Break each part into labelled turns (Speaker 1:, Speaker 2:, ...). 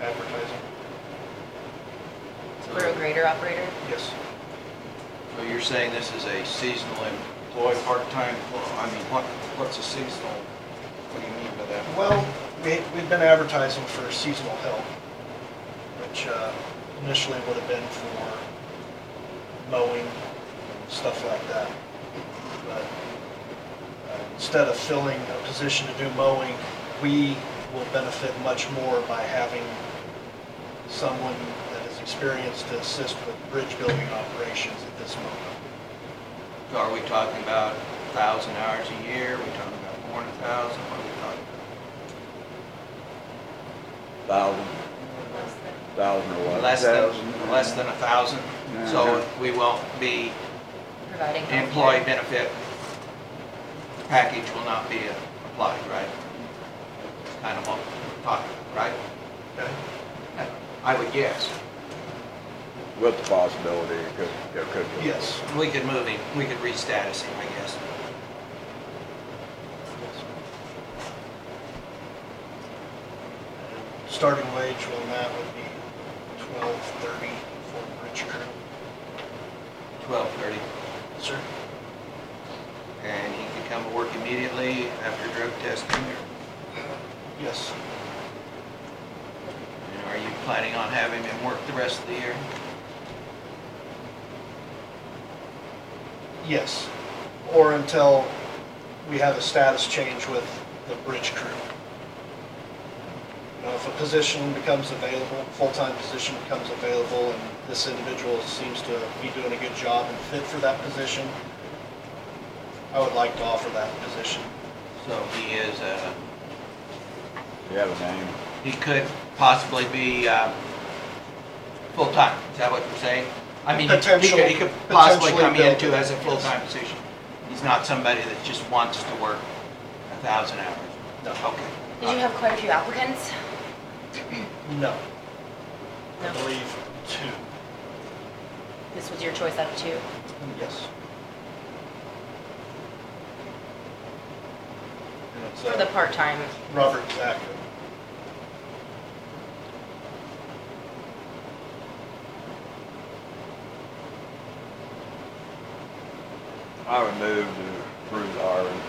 Speaker 1: advertising.
Speaker 2: We're a grader operator.
Speaker 1: Yes,
Speaker 3: So you're saying this is a seasonal employee, part-time, employee? I mean, what, what's a seasonal? What do you mean by that?
Speaker 1: well, we, we've been advertising for seasonal help, which uh, initially would have been for mowing, stuff like that. But uh, instead of filling a position to do mowing, we will benefit much more by having someone that is experienced to assist with bridge building operations at this moment.
Speaker 3: So Are we talking about 1,000 hours a year? Are we talking about more than 1,000? What are we talking
Speaker 4: Thousand, thousand or
Speaker 3: about?
Speaker 4: what?
Speaker 3: Less than,
Speaker 4: Thousand.
Speaker 3: less than 1,000? So we won't be,
Speaker 2: Providing.
Speaker 3: the
Speaker 2: healthcare.
Speaker 3: employee benefit package will not be applied, right? Kind of what we're talking, about, right?
Speaker 1: Okay.
Speaker 3: I would guess.
Speaker 4: With the possibility it could, it could be.
Speaker 1: Yes.
Speaker 3: We could move him, we could restatus him, I guess.
Speaker 1: Starting wage on that would be twelve thirty for bridge crew.
Speaker 3: 1230.
Speaker 1: Sir?
Speaker 3: And he can come to work immediately after drug testing? or-
Speaker 1: Yes.
Speaker 3: And are you planning on having him work the rest of the year?
Speaker 1: Yes. Or until we have a status change with the bridge crew. You know, if a position becomes available, full-time position becomes available, and this individual seems to be doing a good job and fit for that position, I would like to offer that position.
Speaker 3: So he is, uh,
Speaker 4: You have a name?
Speaker 3: he could possibly be uh, full-time, is that what you're saying? I mean, he could- he could- he could
Speaker 1: Potential-
Speaker 3: possibly come
Speaker 1: potentially
Speaker 3: into as a
Speaker 1: built-in, yes.
Speaker 3: full-time position. He's not somebody that just wants to work a 1,000 hours.
Speaker 1: No.
Speaker 3: Okay.
Speaker 2: Did you have quite a few applicants?
Speaker 1: No. I
Speaker 2: No.
Speaker 1: believe two.
Speaker 2: This was your choice out of two?
Speaker 1: Yes. And it's,
Speaker 2: For the
Speaker 1: uh,
Speaker 2: part-time,
Speaker 1: Robert Zachary.
Speaker 4: I would move to approve the hiring,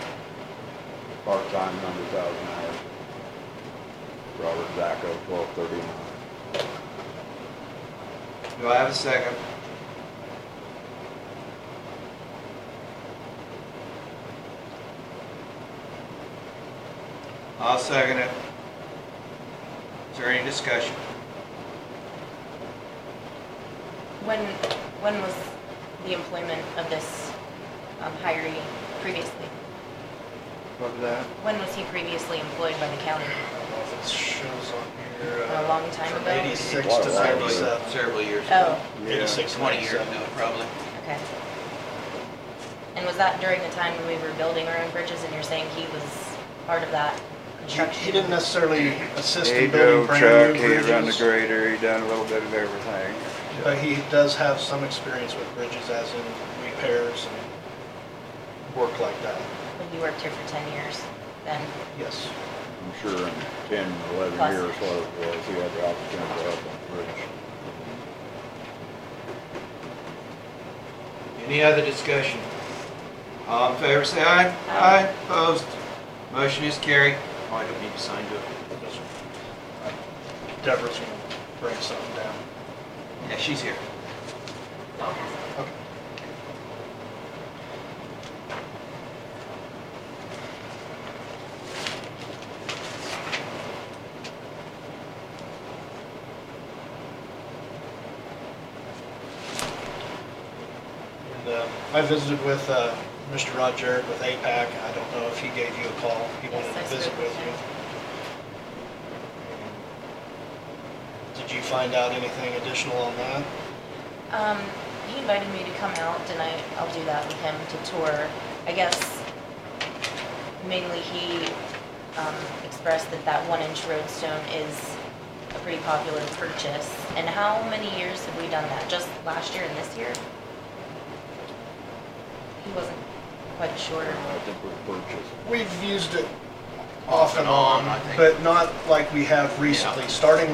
Speaker 4: part-time, hundred thousand hours. Robert Zacco, twelve thirty-nine.
Speaker 3: Do I have a second? I'll second it. Is there any discussion?
Speaker 2: when, when was the employment of this um, hiree previously?
Speaker 3: What was that?
Speaker 2: When was he previously employed by the
Speaker 1: I
Speaker 2: county?
Speaker 1: don't know if it shows on here. uh,
Speaker 2: A long time
Speaker 1: From
Speaker 2: ago?
Speaker 1: eighty-six
Speaker 4: Quite
Speaker 1: to
Speaker 4: a while ago.
Speaker 1: ninety-seven.
Speaker 3: Several years ago.
Speaker 2: Oh,
Speaker 1: Eighty-six,
Speaker 3: Twenty years ago,
Speaker 1: ninety-seven.
Speaker 3: probably.
Speaker 2: okay. And was that during the time when we were building our own bridges and you're saying he was part of that construction?
Speaker 1: He didn't necessarily assist in
Speaker 4: He
Speaker 1: building
Speaker 4: drove
Speaker 1: brand
Speaker 4: truck,
Speaker 1: new
Speaker 4: he run the
Speaker 1: bridges,
Speaker 4: grader, he done a little bit of everything.
Speaker 1: but he does have some experience with bridges as in repairs and work like that.
Speaker 2: When you worked here for 10 years then?
Speaker 1: Yes.
Speaker 4: I'm sure in ten, eleven
Speaker 2: Plus.
Speaker 4: years, what it was, he had the opportunity to help on the bridge.
Speaker 3: Any other discussion? All in favor, say aye.
Speaker 2: Aye.
Speaker 3: Opposed? Motion is carried. Oh, I don't need to sign, do I?
Speaker 1: Deborah's gonna bring something down.
Speaker 3: Yeah, she's here.
Speaker 1: Okay. And uh, I visited with uh, Mr. Rod Jarrett with APAC. I don't know if he gave you a call. He wanted
Speaker 2: Yes, I
Speaker 1: to visit
Speaker 2: spoke
Speaker 1: with
Speaker 2: with
Speaker 1: you. Did you find out anything additional on that?
Speaker 2: Um, he invited me to come out and I, I'll do that with him to tour. I guess mainly he, um, expressed that that one inch roadstone is a pretty popular purchase. And how many years have we done that? Just last year and this year? He wasn't quite sure.
Speaker 4: I think we purchased
Speaker 1: We've used it
Speaker 3: Off
Speaker 1: off
Speaker 3: and
Speaker 1: and
Speaker 3: on,
Speaker 1: on,
Speaker 3: I think.
Speaker 1: but not like we have recently. Starting